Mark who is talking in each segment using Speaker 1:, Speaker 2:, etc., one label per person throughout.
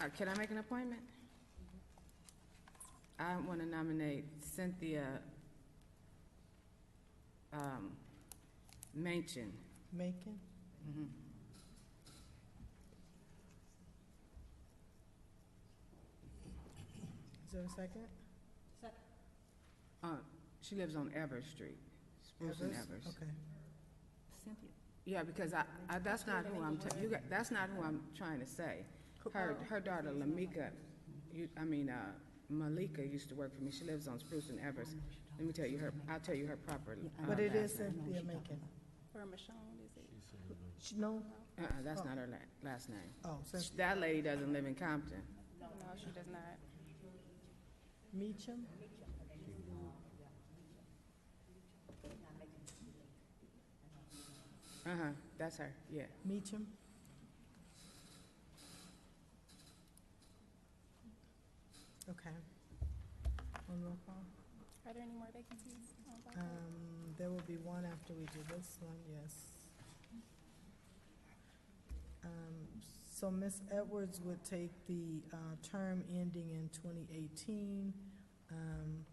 Speaker 1: Uh, Can I make an appointment? I want to nominate Cynthia um, Manchin.
Speaker 2: Macon? Mm-hmm.
Speaker 1: Mhm.
Speaker 2: Is there a second?
Speaker 1: Uh, She lives on Everett Street, Spruce and
Speaker 2: Evers?
Speaker 1: Evers.
Speaker 2: Okay.
Speaker 3: Cynthia.
Speaker 1: Yeah, because I, I, that's not who I'm, ta- you got, that's not who I'm trying to say. Her,
Speaker 2: oh.
Speaker 1: her daughter Lamika, you, I mean, uh, Malika used to work for me. She lives on Spruce and Evers. Let me tell you her, I'll tell you her proper. uh,
Speaker 2: But it is
Speaker 1: last name.
Speaker 2: Cynthia Macon.
Speaker 3: Or Michonne, is it?
Speaker 2: She- No,
Speaker 1: Uh-uh, that's not her la- last name.
Speaker 2: oh,
Speaker 1: Sh-
Speaker 2: Cynthia
Speaker 1: That lady doesn't live in Compton.
Speaker 3: No, she does not.
Speaker 2: Meacham?
Speaker 1: Uh-huh, that's her, yeah.
Speaker 2: Meacham? Okay. One roll call.
Speaker 3: Are there any more vacancies? on Black Hawk?
Speaker 2: Um, there will be one after we do this one, yes. Um, so Ms. Edwards would take the, uh, term ending in twenty eighteen. Um,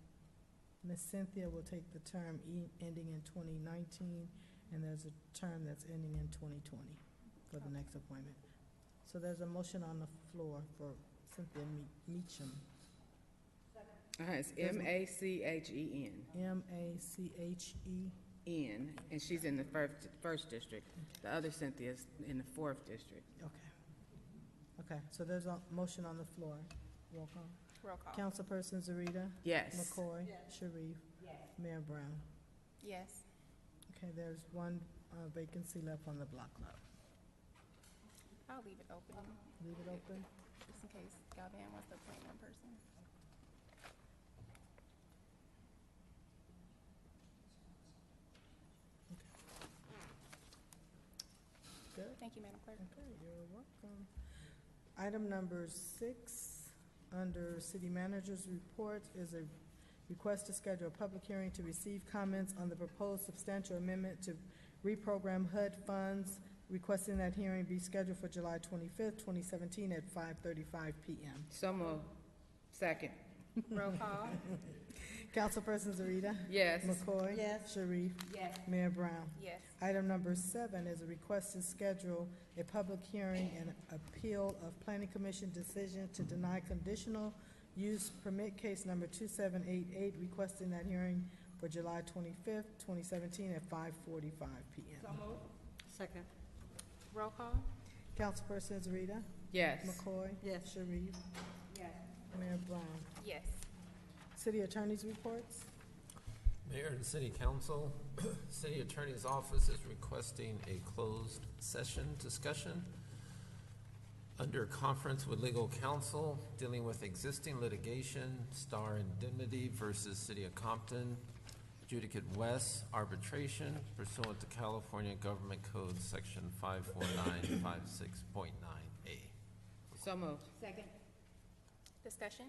Speaker 2: Ms. Cynthia will take the term e- ending in twenty nineteen, and there's a term that's ending in twenty twenty for the next appointment. So there's a motion on the floor for Cynthia Me- Meacham,
Speaker 1: Uh-huh, it's M-A-C-H-E-N,
Speaker 2: M-A-C-H-E.
Speaker 1: E N, and she's in the first, first district. The other Cynthia's in the fourth district.
Speaker 2: Okay. Okay, so there's a motion on the floor. Roll call.
Speaker 3: Roll call.
Speaker 2: Councilperson Zarita.
Speaker 1: Yes.
Speaker 2: McCoy. Sharif. Mayor Brown.
Speaker 3: Yes.
Speaker 2: Okay, there's one uh, vacancy left on the block club.
Speaker 3: I'll leave it open,
Speaker 2: Leave it open.
Speaker 3: just in case Galvin wants to appoint one person.
Speaker 2: Good.
Speaker 3: Thank you, Madam Clerk.
Speaker 2: Okay, you're welcome. Item number six, under city manager's report, is a request to schedule a public hearing to receive comments on the proposed substantial amendment to reprogram HUD funds, requesting that hearing be scheduled for July twenty-fifth, twenty seventeen, at five thirty-five PM.
Speaker 1: So moved. Second.
Speaker 3: Roll call.
Speaker 2: Councilperson Zarita.
Speaker 1: Yes.
Speaker 2: McCoy.
Speaker 3: Yes.
Speaker 2: Sharif.
Speaker 3: Yes.
Speaker 2: Mayor Brown.
Speaker 3: Yes.
Speaker 2: Item number seven is a request to schedule a public hearing and appeal of planning commission decision to deny conditional use permit case number two seven eight eight, requesting that hearing for July twenty-fifth, twenty seventeen at five forty-five P M.
Speaker 4: Second.
Speaker 3: Roll call.
Speaker 2: Councilperson Zarita.
Speaker 1: Yes.
Speaker 2: McCoy.
Speaker 4: Yes.
Speaker 2: Sharif.
Speaker 3: Yes.
Speaker 2: Mayor Brown.
Speaker 3: Yes.
Speaker 2: City attorney's reports.
Speaker 5: Mayor and City Council, City Attorney's Office is requesting a closed session discussion under conference with legal counsel dealing with existing litigation, Star Indemnity versus City of Compton, Judicate West arbitration pursuant to California Government Code Section 54956.9A.
Speaker 1: So moved.
Speaker 3: Second. Discussion.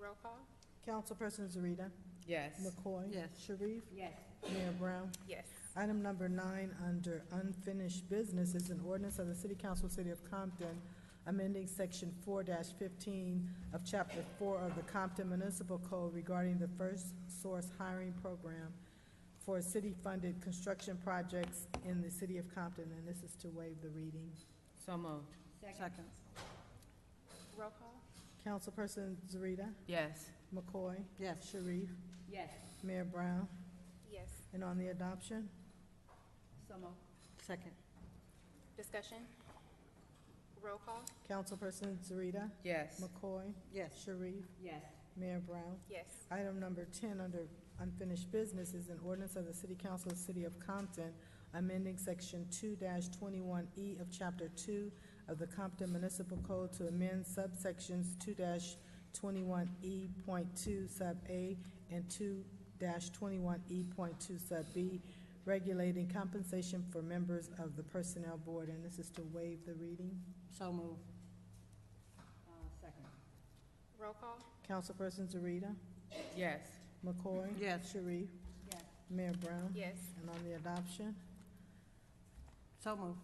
Speaker 3: Roll call.
Speaker 2: Councilperson Zarita.
Speaker 1: Yes.
Speaker 2: McCoy.
Speaker 4: Yes.
Speaker 2: Sharif.
Speaker 3: Yes.
Speaker 2: Mayor Brown.
Speaker 3: Yes.
Speaker 2: Item number nine, under unfinished business, is an ordinance of the City Council, City of Compton, amending section four fifteen of chapter four of the Compton Municipal Code regarding the first source hiring program for city-funded construction projects in the City of Compton, and this is to waive the reading.
Speaker 1: So moved.
Speaker 4: Second.
Speaker 3: Roll call.
Speaker 2: Councilperson Zarita,
Speaker 1: Yes.
Speaker 2: McCoy,
Speaker 4: Yes.
Speaker 2: Sharif,
Speaker 3: Yes.
Speaker 2: Mayor Brown,
Speaker 3: Yes.
Speaker 2: and on the adoption,
Speaker 3: So moved.
Speaker 4: Second.
Speaker 3: Discussion. Roll call.
Speaker 2: Councilperson Zarita,
Speaker 1: Yes.
Speaker 2: McCoy,
Speaker 4: Yes.
Speaker 2: Sharif,
Speaker 3: Yes.
Speaker 2: Mayor Brown.
Speaker 3: Yes.
Speaker 2: Item number ten, under unfinished business, is an ordinance of the City Council of the City of Compton, amending section two twenty-one E of chapter two of the Compton Municipal Code to amend subsections two twenty-one E point two sub A and two twenty-one E point two sub B, regulating compensation for members of the Personnel Board, and this is to waive the reading.
Speaker 4: So move. Uh, Second.
Speaker 3: Roll call.
Speaker 2: Councilperson Zarita,
Speaker 1: Yes.
Speaker 2: McCoy.
Speaker 4: Yes.
Speaker 2: Sharif.
Speaker 3: Yes.
Speaker 2: Mayor Brown.
Speaker 3: Yes.
Speaker 2: And on the adoption,
Speaker 4: So move.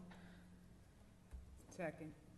Speaker 1: Second.